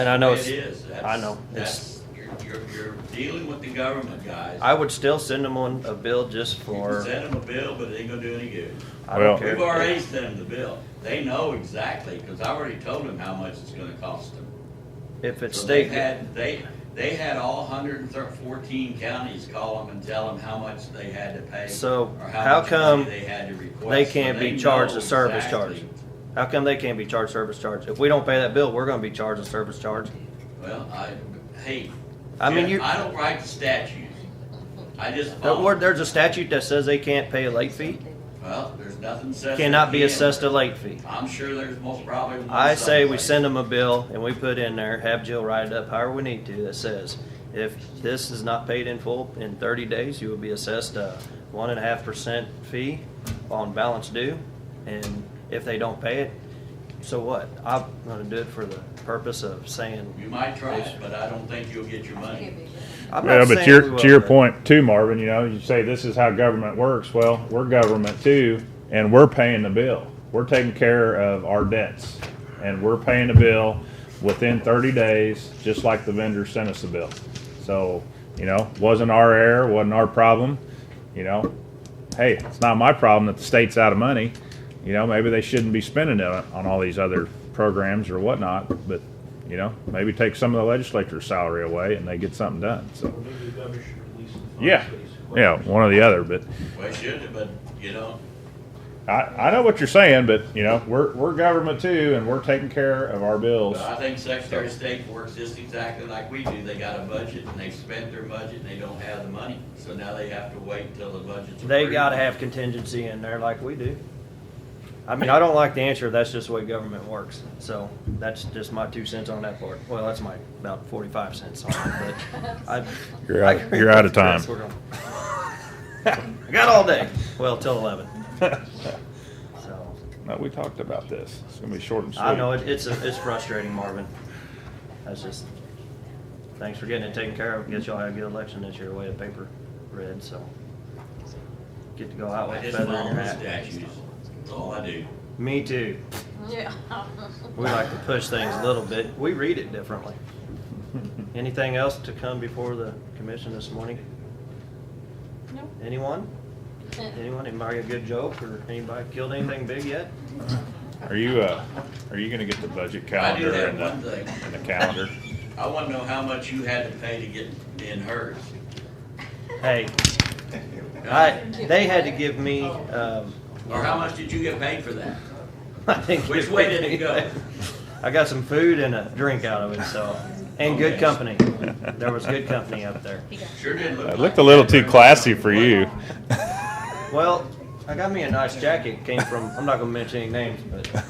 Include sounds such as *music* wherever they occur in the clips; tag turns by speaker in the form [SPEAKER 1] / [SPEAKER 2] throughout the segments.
[SPEAKER 1] And I know
[SPEAKER 2] It
[SPEAKER 1] it's,
[SPEAKER 2] is.
[SPEAKER 1] I know. It's,
[SPEAKER 2] That's, that's- you're, you're, you're dealing with the government, guys.
[SPEAKER 1] I would still send them on a bill just
[SPEAKER 2] You can
[SPEAKER 1] for,
[SPEAKER 2] send them a bill, but it ain't gonna do any good.
[SPEAKER 1] I
[SPEAKER 3] Well-
[SPEAKER 1] don't
[SPEAKER 2] We've
[SPEAKER 1] care.
[SPEAKER 2] already sent them the bill. They know exactly, because I already told them how much it's gonna cost them.
[SPEAKER 1] If it's
[SPEAKER 2] So they
[SPEAKER 1] state,
[SPEAKER 2] had, they, they had all hundred and fourteen counties call them and tell them how much they had to pay.
[SPEAKER 1] So,
[SPEAKER 2] or
[SPEAKER 1] how
[SPEAKER 2] much
[SPEAKER 1] come
[SPEAKER 2] money They had to request.
[SPEAKER 1] they
[SPEAKER 2] So
[SPEAKER 1] can't
[SPEAKER 2] they
[SPEAKER 1] be charged
[SPEAKER 2] know
[SPEAKER 1] a service charge.
[SPEAKER 2] exactly.
[SPEAKER 1] How come they can't be charged service charge? If we don't pay that bill, we're gonna be charged a service charge.
[SPEAKER 2] Well, I, hey.
[SPEAKER 1] I mean,
[SPEAKER 2] Jeff,
[SPEAKER 1] you-
[SPEAKER 2] I don't write the statutes. I just
[SPEAKER 1] There-
[SPEAKER 2] follow.
[SPEAKER 1] or there's a statute that says they can't pay a late fee,
[SPEAKER 2] Well, there's nothing says. they
[SPEAKER 1] cannot be
[SPEAKER 2] can.
[SPEAKER 1] assessed a late fee.
[SPEAKER 2] I'm sure there's most probably. one
[SPEAKER 1] I say we
[SPEAKER 2] someplace.
[SPEAKER 1] send them a bill and we put in there, have Jill write it up however we need to, that says, if this is not paid in full in thirty days, you will be assessed a one and a half percent fee on balance due, and if they don't pay it, so what? I'm gonna do it for the purpose of saying,
[SPEAKER 2] You might try it, but I don't think you'll get your money.
[SPEAKER 1] I'm
[SPEAKER 3] Yeah,
[SPEAKER 1] not
[SPEAKER 3] but
[SPEAKER 1] saying
[SPEAKER 3] to
[SPEAKER 1] we
[SPEAKER 3] your,
[SPEAKER 1] will,
[SPEAKER 3] to your
[SPEAKER 1] but
[SPEAKER 3] point too, Marvin, you know, you say this is how government works. Well, we're government too, and we're paying the bill. We're taking care of our debts, and we're paying the bill within 30 days, just like the vendor sent us the bill. So, you know, wasn't our error, wasn't our problem. You know, hey, it's not my problem that the state's out of money. You know, maybe they shouldn't be spending it on on all these other programs or whatnot, but, you know, maybe take some of the legislature's salary away and they get something done, so.
[SPEAKER 4] Or maybe the government should release the funds
[SPEAKER 3] Yeah,
[SPEAKER 4] that he's
[SPEAKER 3] yeah, one or the other, but
[SPEAKER 2] Well, should have, but, you know,
[SPEAKER 3] I, I know what you're saying, but, you know, we're, we're government too, and we're taking care of our bills.
[SPEAKER 2] but I think Secretary of State works just exactly like we do. They got a budget and they've spent their budget and they don't have the money. So now they have to wait till the budget's.
[SPEAKER 1] They
[SPEAKER 2] approved.
[SPEAKER 1] gotta have contingency in there like we do. I mean, I don't like the answer, that's just the way government works, so that's just my two cents on that part. Well, that's my about forty-five cents on it, but I.
[SPEAKER 3] You're out- you're out of time.
[SPEAKER 1] We're gonna-
[SPEAKER 3] *laughs*
[SPEAKER 1] I got all day, well, till eleven, so.
[SPEAKER 3] No, we talked about this. It's gonna be short and sweet.
[SPEAKER 1] I know, it- it's, a- it's frustrating, Marvin. That's just, thanks for getting it taken care of, guess y'all had a good election this year, way of paper red, so. Get to go out
[SPEAKER 2] I
[SPEAKER 1] with a
[SPEAKER 2] just
[SPEAKER 1] feather in
[SPEAKER 2] follow
[SPEAKER 1] your
[SPEAKER 2] the
[SPEAKER 1] hat.
[SPEAKER 2] statutes. That's all I do.
[SPEAKER 1] Me too.
[SPEAKER 5] Yeah.
[SPEAKER 1] We like to push things a little bit. We read it differently. *laughs* Anything else to come before the commission this morning?
[SPEAKER 5] No.
[SPEAKER 1] Anyone? Anyone? Anybody got a good joke or anybody killed anything big yet?
[SPEAKER 3] Are you, uh, are you gonna get the budget
[SPEAKER 2] I do
[SPEAKER 3] calendar
[SPEAKER 2] have
[SPEAKER 3] and uh,
[SPEAKER 2] one
[SPEAKER 3] the,
[SPEAKER 2] thing.
[SPEAKER 3] and the calendar?
[SPEAKER 2] I want to know how much you had to pay to get in hers.
[SPEAKER 1] Hey, I, they had to give me, um, *laughs*
[SPEAKER 2] Or how much did you get paid for that?
[SPEAKER 1] I think.
[SPEAKER 2] Which way did it go?
[SPEAKER 1] I got some food and a drink out of it, so, and good company. There was good company up there.
[SPEAKER 2] Sure did look.
[SPEAKER 3] It
[SPEAKER 2] like
[SPEAKER 3] looked a little
[SPEAKER 2] that.
[SPEAKER 3] too classy for you.
[SPEAKER 1] Well, I got me a nice jacket. Came from I'm not gonna mention any names,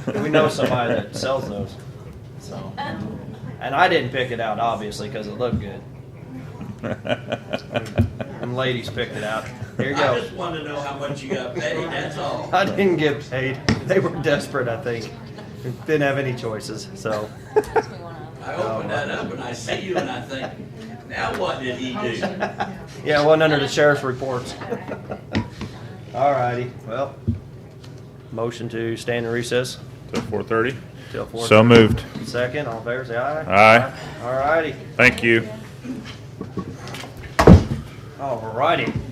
[SPEAKER 1] but we know somebody that sells those. So, and I didn't pick it out obviously because it looked good. And ladies picked it out. Here you
[SPEAKER 2] I
[SPEAKER 1] go.
[SPEAKER 2] just want to know how much you got paid, that's
[SPEAKER 1] *laughs*
[SPEAKER 2] all.
[SPEAKER 1] I didn't get paid. They were desperate, I think. Didn't have any choices, so
[SPEAKER 2] *laughs* I open that up and I see you and I think, now what did he do?
[SPEAKER 1] yeah, it wasn't under the sheriff's reports. All righty. Well, motion to stand in recess
[SPEAKER 3] Till four thirty?
[SPEAKER 1] till four.
[SPEAKER 3] *laughs* So moved.
[SPEAKER 1] Second, all in favor, say
[SPEAKER 3] Aye.
[SPEAKER 1] All righty.
[SPEAKER 3] Thank you.
[SPEAKER 1] All righty.